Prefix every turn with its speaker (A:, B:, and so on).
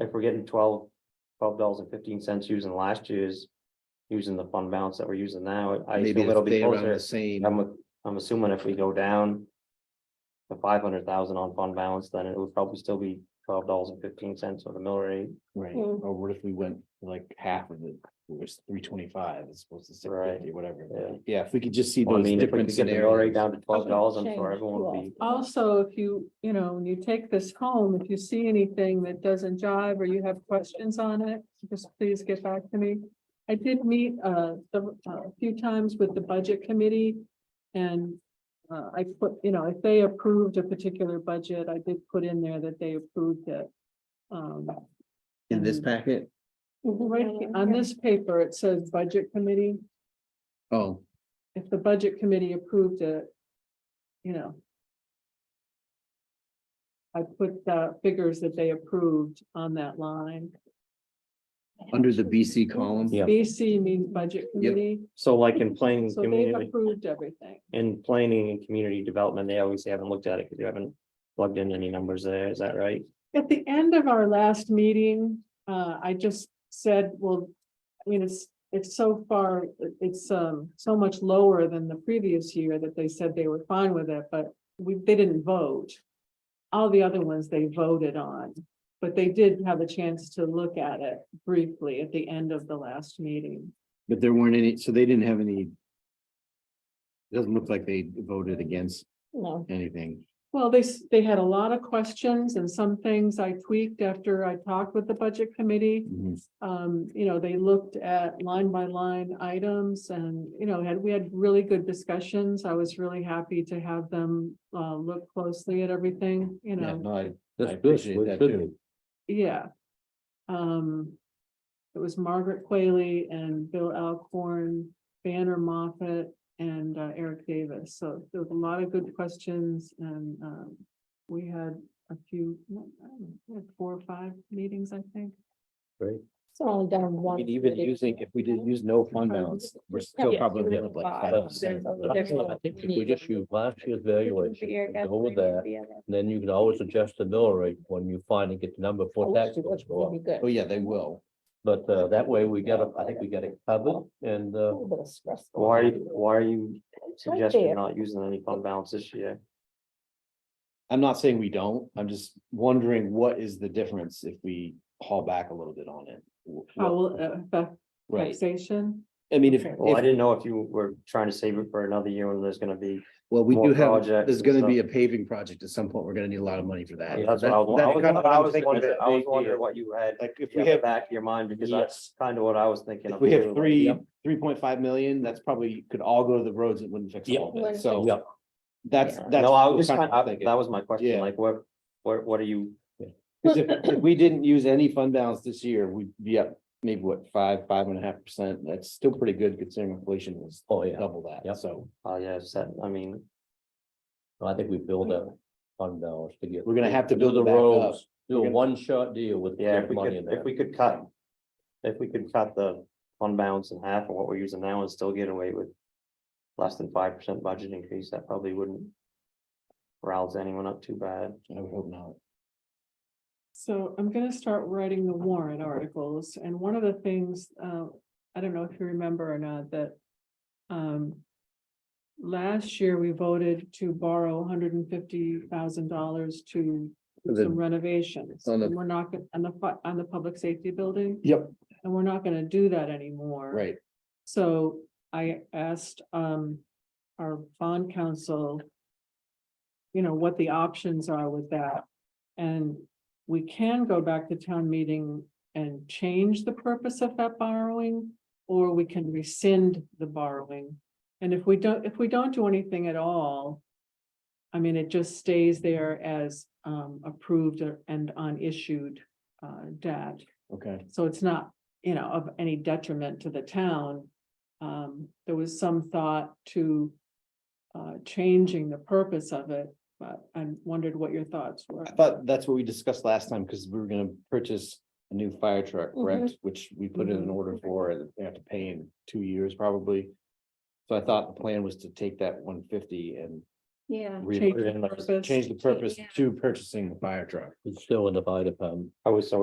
A: if we're getting twelve, twelve dollars and fifteen cents using last year's. Using the fund balance that we're using now, I
B: Maybe
A: feel it'll be
B: they around
A: closer.
B: the same.
A: I'm, I'm assuming if we go down. To five hundred thousand on fund balance, then it would probably still be twelve dollars and fifteen cents or the mill rate.
B: Right,
C: Mm.
B: or what if we went like half of it, it was three twenty-five as opposed to six
A: Right.
B: fifty, whatever.
A: Yeah.
B: Yeah, if we could just see
A: Well, I
B: those
A: mean, if we
B: different
A: could get the mill rate
B: scenarios.
A: down to twelve dollars, I'm sure
C: Change
A: everyone would be.
D: Also, if you, you know, when you take this home, if you see anything that doesn't jive or you have questions on it, just please get back to me. I did meet uh the- a few times with the budget committee and uh I put, you know, if they approved a particular budget, I did put in there that they approved it. Um,
B: In this packet,
D: right he- on this paper, it says budget committee.
B: oh,
D: If the budget committee approved it, you know. I put the figures that they approved on that line.
B: under the
C: Mm-hmm.
B: BC column.
A: Yeah.
D: BC means budget committee,
A: So like in planning,
D: so they've
A: community,
D: approved everything.
A: in planning and community development, they obviously haven't looked at it because you haven't plugged in any numbers there, is that right?
D: At the end of our last meeting, uh, I just said, well, I mean, it's, it's so far, it- it's, um, so much lower than the previous year that they said they were fine with it, but we, they didn't vote. All the other ones they voted on, but they did have a chance to look at it briefly at the end of the last meeting.
B: But there weren't any, so they didn't have any. It Doesn't look like they voted against
C: No,
B: anything.
D: Well, they, s- they had a lot of questions and some things I tweaked after I talked with the budget committee.
B: Mhm.
D: Um, you know, they looked at line by line items and, you know, had, we had really good discussions. I was really happy to have them uh look closely at everything, you
B: Yeah,
D: know,
B: no, I, I
E: That's good.
B: appreciate
E: Well,
B: that
E: it should
B: too.
E: be.
D: yeah. Um, it was Margaret Quayle and Bill Alcorn, Banner Moffett, and uh, Eric Davis. So there was a lot of good questions and um we had a few, I don't know, we had four or five meetings, I think.
C: it's only down
B: I
C: one.
B: mean, Even using, if we did use no fund balance, we're still
C: Yeah,
B: probably
C: even
B: up like
C: five.
B: five percent.
C: There's-
E: I
C: there's
E: think- I
C: no
E: think if we
C: need.
E: just use last year's valuation, and go with that,
C: Yeah.
E: then you can always adjust the mill rate when you finally get the number
C: Oh,
E: for tax goes up.
C: Really good.
B: Oh, yeah, they will.
E: But uh, that way we got, it- I think we got it covered and
C: A
E: uh,
C: little bit of stress.
A: Why, are you- why are you
C: It's right
A: suggesting
C: there.
A: not using any fund balance this year?
B: I'm not saying we don't, I'm just wondering what is the difference if we haul back a little bit on it? Wh-
D: How
B: what-
D: will it affect
B: Right,
D: taxation?
B: I mean, if,
C: Okay.
A: Well, I
B: if-
A: didn't know if you were trying to save it for another year when there's gonna be,
B: well, we
A: more
B: do have,
A: projects
B: there's
A: and
B: gonna be a paving project at some point, we're gonna need a lot of money for that.
A: that's what
B: That-
A: I was, I
B: that's
A: was,
B: kind of what
A: I
B: I'm
A: was
B: thinking,
A: wondering,
B: it's a
A: I was
B: big
A: wondering
B: deal.
A: what you had.
B: Like, if
A: in
B: we
A: the
B: have,
A: Back of your mind, because
B: Yes.
A: that's kind of what I was thinking.
B: if
A: of
B: we have
A: too, like,
B: three, three point five million, that's probably, could all go to the roads, it wouldn't fix
E: Yeah.
B: all of it,
C: Wouldn't
B: so.
E: fix- Yeah.
B: That's,
A: yeah.
B: that's.
A: No, I was
B: the
A: kind
B: kind I'm
A: of,
B: thinking.
A: that was my question,
B: Yeah.
A: like, what, what, what are you,
B: 'Cause if, if we didn't use any fund balance this year, we'd be up maybe what, five, five and a half percent, that's still pretty good considering inflation was
E: oh yeah,
B: double
E: Yeah.
B: that, so.
A: oh, yeah, set, I mean,
E: I think we build that fund balance to get.
B: We're gonna have to
E: do
B: build
E: the
B: it back up.
E: roads, Do
B: We're
E: a
B: gonna-
E: one shot deal with.
A: yeah,
E: the
A: if we
E: money
A: could,
E: in
A: if
E: there.
A: we could cut. If we could cut the fund balance in half of what we're using now and still get away with. Less than five percent budget increase, that probably wouldn't. Rouse anyone up too bad.
B: I would hope not.
D: So I'm gonna start writing the warrant articles, and one of the things, uh, I don't know if you remember or not, that. Um. Last year, we voted to borrow hundred and fifty thousand dollars to do
B: The-
D: some renovations.
B: on the-
D: And we're not, gon- on the, fu- on the public safety building,
B: Yep.
D: and we're not gonna do that anymore.
B: Right,
D: So I asked um our bond counsel. You know, what the options are with that. And we can go back to town meeting and change the purpose of that borrowing. Or we can rescind the borrowing. And if we don't, if we don't do anything at all. I mean, it just stays there as um approved and unissued uh debt.
B: okay.
D: So it's not, you know, of any detriment to the town. Um, there was some thought to uh, changing the purpose of it, but I wondered what your thoughts were.
B: I thought that's what we discussed last time, because we were gonna purchase a new fire truck,
D: Mm-hmm.
B: correct? Which we put in an
D: Mhm.
B: order for, and they have to pay in two years probably. So I thought the plan was to take that one fifty and
C: Yeah.
B: re-
D: Change the
B: re-
D: purpose.
B: change the purpose
C: Yeah.
B: to purchasing the fire truck.
E: It's still in the bite of um.
A: I was so